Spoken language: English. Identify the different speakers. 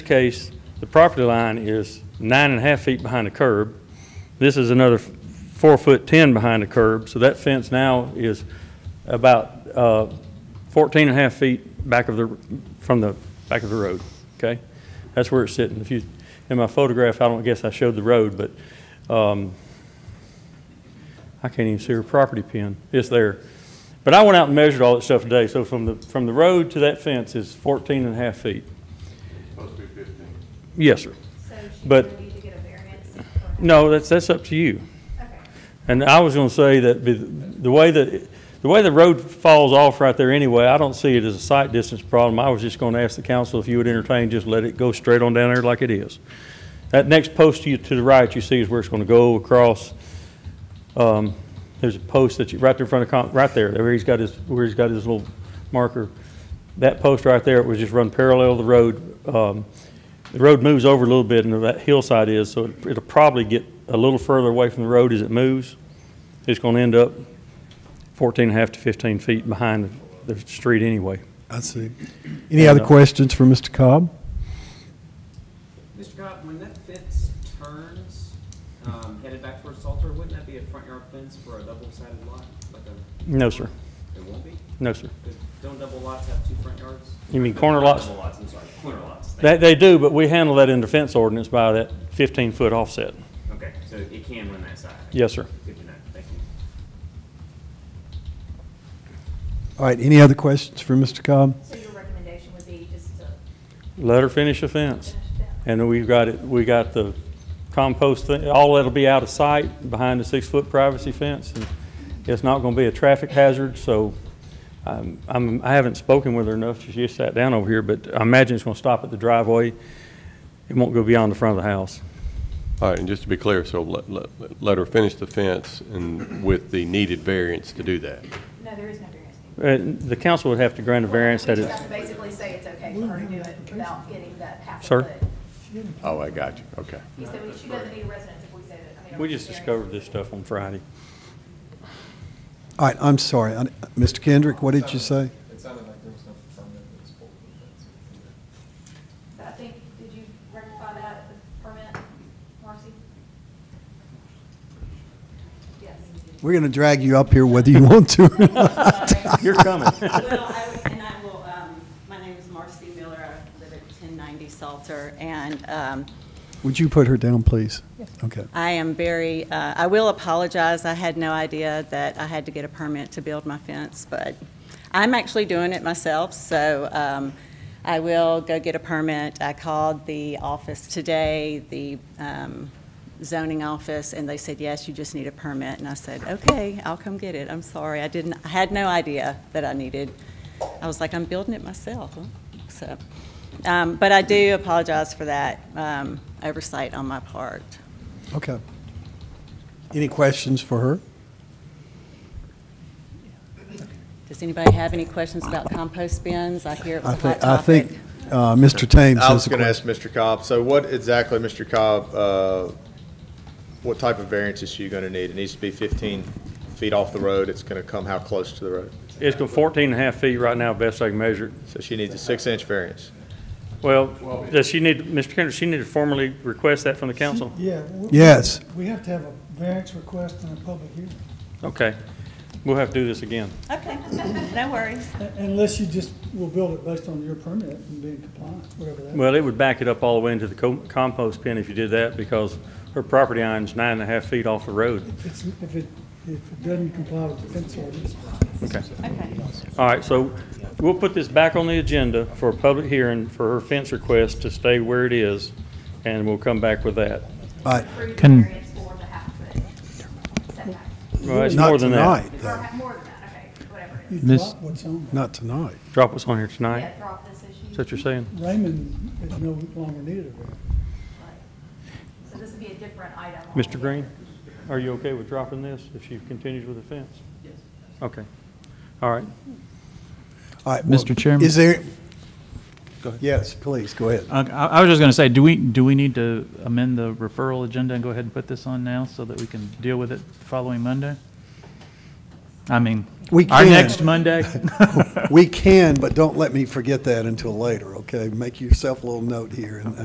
Speaker 1: case, the property line is nine and a half feet behind the curb. This is another f- four foot 10 behind the curb, so that fence now is about uh, 14 and a half feet back of the, from the back of the road, okay? That's where it's sitting. If you, in my photograph, I don't guess I showed the road, but um, I can't even see her property pin. It's there. But I went out and measured all that stuff today, so from the, from the road to that fence is 14 and a half feet.
Speaker 2: Supposed to be fifteen.
Speaker 1: Yes, sir.
Speaker 3: So she's
Speaker 1: But-
Speaker 3: going to need to get a variance? or-
Speaker 1: No, that's, that's up to you.
Speaker 3: Okay.
Speaker 1: And I was gonna say that the- the way that, the way the road falls off right there anyway, I don't see it as a sight distance problem. I was just gonna ask the council if you would entertain, just let it go straight on down there like it is. That next post to you, to the right, you see is where it's gonna go across. Um, There's a post that you, right there in front of, con- right there, where he's got his, where he's got his little marker. That post right there, it was just run parallel to the road. Um, The road moves over a little bit and that hillside is, so it- it'll probably get a little further away from the road as it moves. It's going to end up 14 and a half to 15 feet behind the the street anyway.
Speaker 4: I see. Any other
Speaker 1: uh,
Speaker 4: questions for Mr. Cobb?
Speaker 5: Mr. Cobb, when that fence turns, um, headed back towards Salter, wouldn't that be a front yard fence for a double-sided lot? Like a,
Speaker 1: No, sir.
Speaker 5: it won't be?
Speaker 1: No, sir.
Speaker 5: 'Cause Don't double lots have two front yards?
Speaker 1: You mean corner lots?
Speaker 5: Double lots, I'm sorry, corner lots.
Speaker 1: They, they do, but we handle that in the fence ordinance by that 15-foot offset.
Speaker 5: Okay, so it can run that side?
Speaker 1: Yes, sir.
Speaker 5: Good to know, thank you.
Speaker 4: All right, any other questions for Mr. Cobb?
Speaker 3: So your recommendation would be just to
Speaker 1: Let her finish the fence.
Speaker 3: finish that?
Speaker 1: And then we've got it, we got the compost thing, all that'll be out of sight behind the six-foot privacy fence. and It's not going to be a traffic hazard, so um, I'm, I haven't spoken with her enough. She just sat down over here, but I imagine it's going to stop at the driveway. It won't go beyond the front of the house.
Speaker 2: All right, and just to be clear, so let, let, let her finish the fence and with the needed variance to do that.
Speaker 3: No, there is no variance.
Speaker 1: Uh, The council would have to grant a variance that
Speaker 3: You
Speaker 1: is,
Speaker 3: have to basically say it's okay for her to do it without getting that half a
Speaker 1: Sir?
Speaker 3: foot.
Speaker 2: Oh, I got you, okay.
Speaker 3: He said, well, she doesn't need a residence if we say that. I mean, a
Speaker 1: we just
Speaker 3: variance.
Speaker 1: discovered this stuff on Friday.
Speaker 4: All right, I'm sorry. I- Mr. Kendrick, what did you say?
Speaker 6: It sounded like there was no permanent municipal defense.
Speaker 3: But I think, did you rectify that at the permit, Marcy? Yes.
Speaker 4: We're going to drag you up here whether you want to or not.
Speaker 1: You're coming.
Speaker 7: Well, I would- and I will, um, my name is Marcy Miller, I live at 1090 Salter, and um,
Speaker 4: Would you put her down, please? Okay.
Speaker 7: I am very, uh, I will apologize, I had no idea that I had to get a permit to build my fence, but I'm actually doing it myself, so um, I will go get a permit. I called the office today, the um, zoning office, and they said, yes, you just need a permit, and I said, okay, I'll come get it, I'm sorry, I didn't, I had no idea that I needed, I was like, I'm building it myself, huh? so. um, But I do apologize for that um, oversight on my part.
Speaker 4: Okay. Any questions for her?
Speaker 7: Does anybody have any questions about compost bins? I hear it
Speaker 4: I
Speaker 7: was a
Speaker 4: think,
Speaker 7: hot
Speaker 4: I
Speaker 7: topic.
Speaker 4: think uh, Mr. Thames
Speaker 8: I
Speaker 4: has
Speaker 8: was
Speaker 4: a
Speaker 8: going to
Speaker 4: question.
Speaker 8: ask Mr. Cobb, so what exactly, Mr. Cobb, uh, what type of variance is she going to need? It needs to be 15 feet off the road, it's going to come how close to the road?
Speaker 1: It's going 14 and a half feet right now, best I can measure it.
Speaker 8: So she needs a six-inch variance.
Speaker 1: Well, does she need, Mr. Kendrick, she need to formally request that from the council?
Speaker 9: Yeah. we-
Speaker 4: Yes.
Speaker 9: We have to have a variance request and a public hearing,
Speaker 1: Okay. We'll have to do this again.
Speaker 7: Okay, no worries.
Speaker 9: Un- unless you just will build it based on your permit and being compliant, whatever that.
Speaker 1: Well, it would back it up all the way into the co- compost bin if you did that, because her property line's nine and a half feet off the road.
Speaker 9: If it's, if it, if it doesn't comply with the fence ordinance,
Speaker 7: Okay.
Speaker 1: All right, so we'll put this back on the agenda for a public hearing for her fence request to stay where it is, and we'll come back with that.
Speaker 4: All right,
Speaker 3: Approve the
Speaker 6: Can-
Speaker 3: variance for the half foot setback.
Speaker 1: Well, it's more
Speaker 4: Not
Speaker 1: than that.
Speaker 4: tonight,
Speaker 3: Or
Speaker 4: though.
Speaker 3: ha- more than that, okay, whatever it
Speaker 9: you
Speaker 3: is.
Speaker 6: Miss-
Speaker 9: drop what's on.
Speaker 4: Not tonight.
Speaker 1: Drop what's on here tonight.
Speaker 3: Yeah, drop this issue.
Speaker 1: Is that what you're saying?
Speaker 9: Raymond is no longer needed a variance.
Speaker 3: So this would be a different item.
Speaker 1: Mr. Green, are you okay with dropping this if she continues with the fence? Yes. Okay. All right.
Speaker 4: All right. well,
Speaker 6: Mr. Chairman?
Speaker 4: Is there? Yes, please, go ahead.
Speaker 6: I, Uh, I was just going to say, do we, do we need to amend the referral agenda and go ahead and put this on now so that we can deal with it the following Monday? I mean,
Speaker 4: We
Speaker 6: our
Speaker 4: can.
Speaker 6: next Monday?
Speaker 4: We can, but don't let me forget that until later, okay? Make yourself a little note here, and